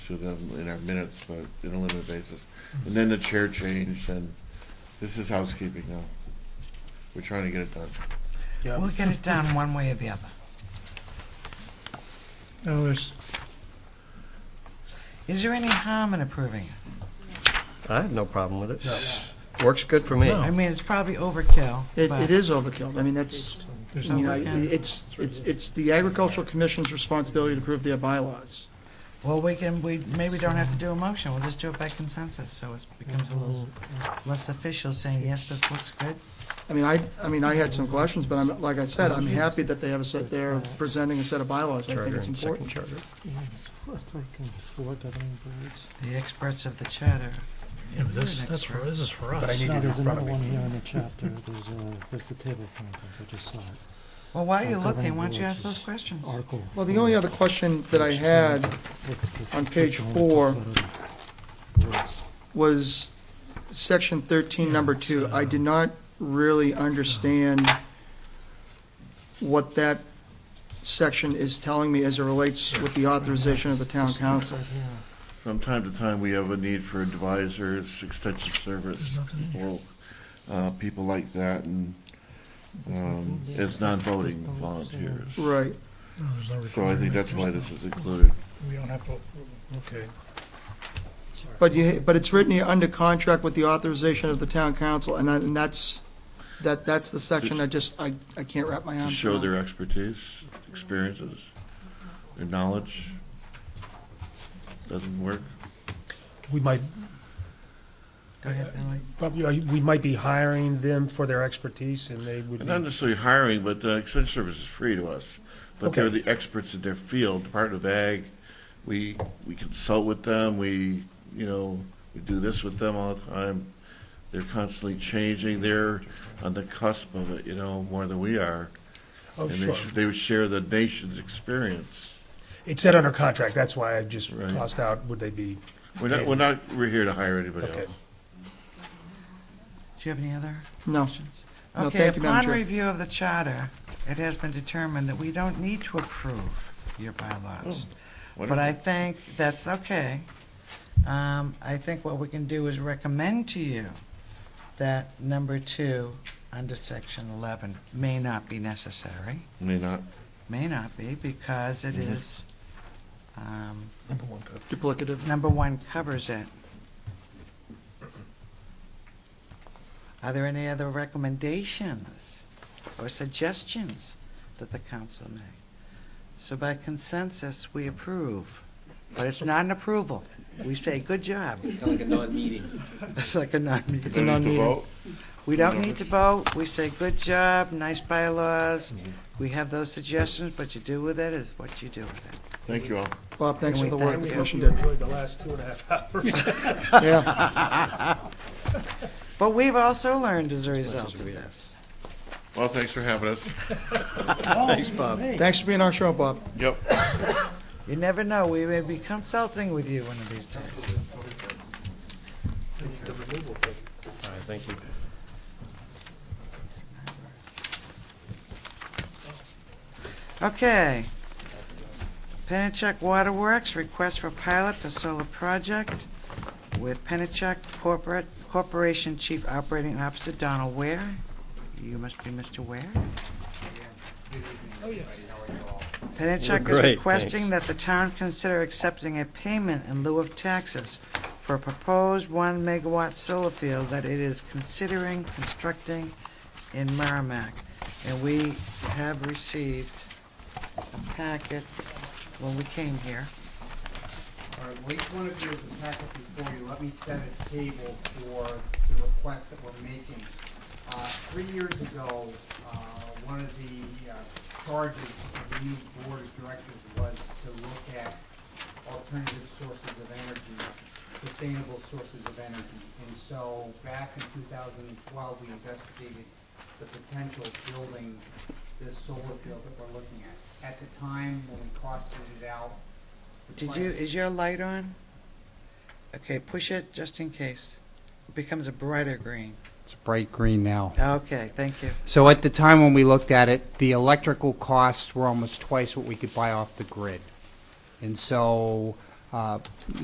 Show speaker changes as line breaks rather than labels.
to them in our minutes, but in a limited basis. And then the chair changed, and this is housekeeping now. We're trying to get it done.
Yeah,
We'll get it done one way or the other.
no, there's,
Is there any harm in approving it?
I have no problem with it. Works good for me.
No.
I mean, it's probably overkill,
It,
but
it is overkill. I mean, that's,
there's
you know,
nothing,
it's, it's, it's the agricultural commission's responsibility to approve their bylaws.
well, we can we maybe don't have to do a motion. We'll just do it by consensus, so it becomes a little
Mm-hmm.
less official, saying yes, this looks good.
I mean, I, I mean, I had some questions, but I'm, like I said, I'm happy that they have a set, they're presenting a set of bylaws. I think
Charter
it's
and second
important.
charter.
The experts of the charter.
yeah, but this,
You're an
that's, for-
expert.
this is for
But I
us.
need
No,
it in
there's
front
another
of me.
one here in the chapter, there's, uh, there's the table of contents, I just saw it.
Well, while you're
Uh,
looking,
governing
why don't you
boards
ask those
is
questions?
Article.
Well, the only other question that I had on page four- was section thirteen, number two. I did not really understand what that section is telling me as it relates with the authorization of the town council.
From time to time, we have a need for advisors, extension service,
There's nothing in here.
people, uh, people like that, and, um, as non-voting volunteers.
Right.
No, there's no
So I
requirement.
think that's why
There's
this is included.
no- We don't have to approve it. Okay.
But you, but it's written here under contract with the authorization of the town council, and I, and that's, that, that's the section I just, I, I can't wrap my
To
arms
show
around.
their expertise, experiences, their knowledge. Doesn't work.
We might,
Go ahead, Billy.
probably, uh, we might be hiring them for their expertise and they would
And Not
be,
necessarily hiring, but uh, extension service is free to us. But they're the experts in their field, Department of Ag. We, we consult with them, we, you know, we do this with them all the time. They're constantly changing, they're on the cusp of it, you know, more than we are.
oh,
And they
sure.
should- They would share the nation's experience.
It said under contract, that's why I just
Right.
tossed out, would they be,
We're not, we're not, we're here to hire anybody
Okay.
else.
Do you have any other
No.
questions?
No,
Okay,
thank you, Madam
upon
Chair.
review of the charter, it has been determined that we don't need to approve your bylaws.
Oh.
But I think that's okay. Um, I think what we can do is recommend to you that number two, under section eleven, may not be necessary.
May not.
May not be, because it is, um,
Number one cut.
Duplicative.
number one covers it. Are there any other recommendations or suggestions that the council make? So by consensus, we approve, but it's not an approval. We say, good job.
Kind of like a non-meeting.
It's like a
It's
non-meeting.
a non-meeting.
We don't need to vote. We say, good job, nice bylaws. We have those suggestions, but you do with it is what you do with it.
Thank you all.
Bob, thanks for the work the
Thank you.
commission
you
did.
enjoyed the last two and a half hours?
Yeah,
But we've also learned as a result of this.
Well, thanks for having us.
Thanks, Bob.
thanks for being on our show, Bob.
Yep.
You never know, we may be consulting with you one of these days.
All right, thank you.
Okay. Pennachuck Waterworks, request for pilot for solar project with Pennachuck Corporate, Corporation Chief Operating Officer Donald Ware. You must be Mr. Ware. Pennachuck
We're
is
great,
requesting
thanks.
that the town consider accepting a payment in lieu of taxes for a proposed one megawatt solar field that it is considering constructing in Merrimack. And we have received a packet when we came here.
All right, well, each one of you has a packet before you. Let me set a table for the request that we're making. Uh, Three years ago, uh, one of the uh, charges of the new board of directors was to look at alternative sources of energy, sustainable sources of energy. And so back in 2012, we investigated the potential of building this solar field that we're looking at. At the time, when we costed it out, the
Did
price-
you, is your light on? Okay, push it just in case. It becomes a brighter green.
It's bright green now.
Okay, thank you.
So at the time when we looked at it, the electrical costs were almost twice what we could buy off the grid. And so, uh,